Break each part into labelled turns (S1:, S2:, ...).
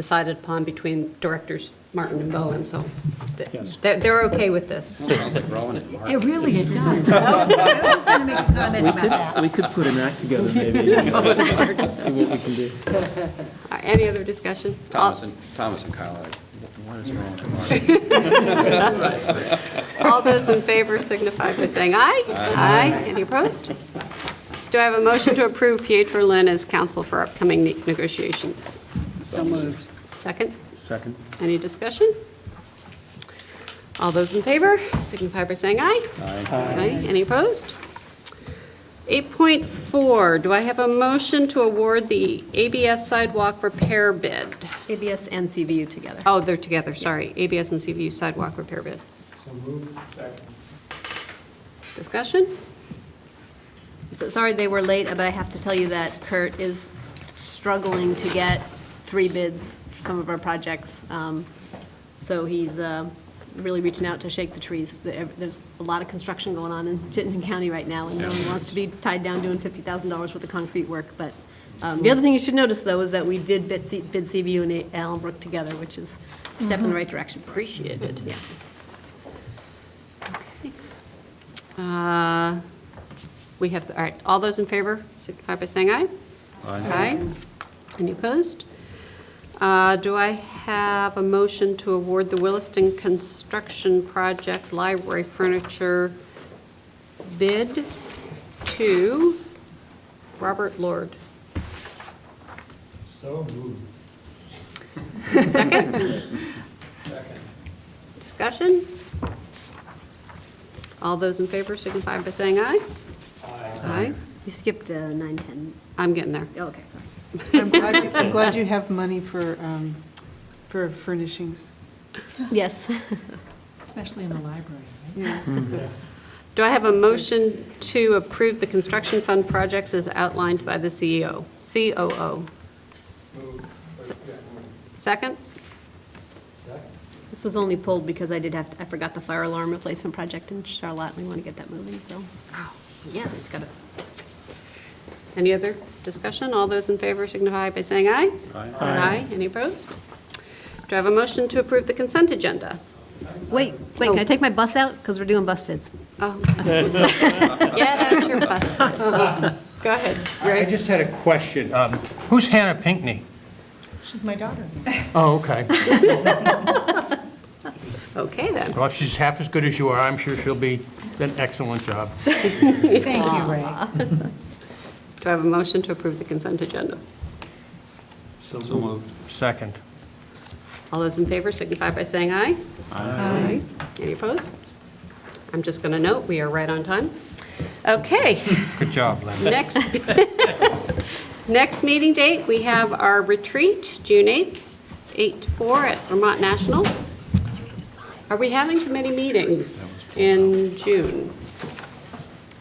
S1: decided upon between directors Martin and Bowen, so th-
S2: Yes.
S1: they're, they're okay with this.
S3: Sounds like Rowan and Mark.
S4: It really, it does. I was- I was going to make a comment about that.
S2: We could put an act together maybe, and uh, see what we can do.
S1: Uh, Any other discussion? All-
S3: Thomas and, Thomas and Kyle are like, "Wh- what is wrong with Mark?
S1: All those in favor signify by saying aye. Aye. Any opposed? Do I have a motion to approve Pietro Lynn as counsel for upcoming ne- negotiations?
S4: So moved.
S1: Second?
S2: Second.
S1: Any discussion? All those in favor signify by saying aye.
S3: Aye.
S1: Aye. Any opposed? 8.4, do I have a motion to award the ABS sidewalk repair bid?
S4: ABS and CVU together.
S1: Oh, they're together, sorry. ABS and CVU sidewalk repair bid.
S5: So moved, second.
S1: Discussion?
S4: So sorry they were late, but I have to tell you that Kurt is struggling to get three bids for some of our projects. Um, So he's uh, really reaching out to shake the trees. There- There's a lot of construction going on in Chittenden County right now, and no one wants to be tied down doing $50,000 worth of concrete work. But um, the other thing you should notice, though, is that we did bid C- bid CVU and Allenbrook together, which is a step
S2: Mm-hmm.
S4: in the right direction. for us.
S1: Appreciated.
S4: Yeah.
S1: Uh, We have, all right, all those in favor signify by saying aye. Aye. Any opposed? Uh, Do I have a motion to award the Williston Construction Project Library Furniture bid to Robert Lord?
S5: So moved. Second.
S1: Discussion? All those in favor signify by saying aye.
S5: Second.
S1: Aye.
S4: You skipped uh, 9, 10.
S1: I'm getting there.
S4: Oh, Okay, sorry.
S6: I'm glad, you- I'm glad you have money for, um, for furnishings.
S4: Yes.
S7: Especially in the library, right?
S1: Do I have a motion to approve the construction fund projects as outlined by the E CEO, COO?
S5: Moved, first, yeah, moved.
S1: Second?
S5: Second.
S4: This was only pulled because I did have, I forgot the fire alarm replacement project in Charlotte, and we want to get that moving, so. Yes.
S1: Got it. Any other discussion? All those in favor signify by saying aye.
S3: Aye.
S1: Aye. Any opposed? Do I have a motion to approve the consent agenda?
S4: Wait, wait, can I take my bus out? Because we're doing bus bids.
S1: Oh. Yeah, that's your bus. Go ahead.
S8: I
S1: Rick.
S8: just had a question. Um, Who's Hannah Pinkney?
S7: She's my daughter.
S8: Oh, okay.
S1: Okay, then.
S8: Well, if she's half as good as you are, I'm sure she'll be, an excellent job.
S7: Thank you, Ray.
S1: Do I have a motion to approve the consent agenda?
S3: So moved.
S8: Second.
S1: All those in favor signify by saying aye. Aye. Any opposed? I'm just going to note, we are right on time. Okay,
S8: Good job, Lynn.
S1: next, next meeting date, we have our retreat, June 8th, 8 to 4 at Vermont National. Are we having committee meetings in June?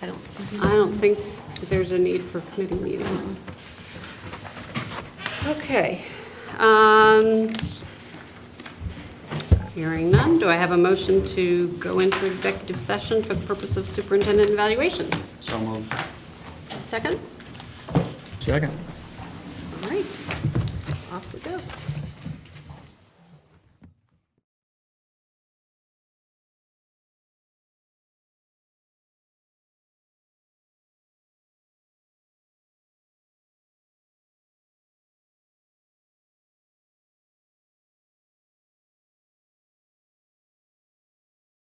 S4: I don't,
S1: I don't think there's a need for committee meetings. Okay. um, Hearing none, do I have a motion to go into executive session for the purpose of superintendent evaluation?
S3: So moved.
S1: Second?
S2: Second.
S1: All right. Off we go.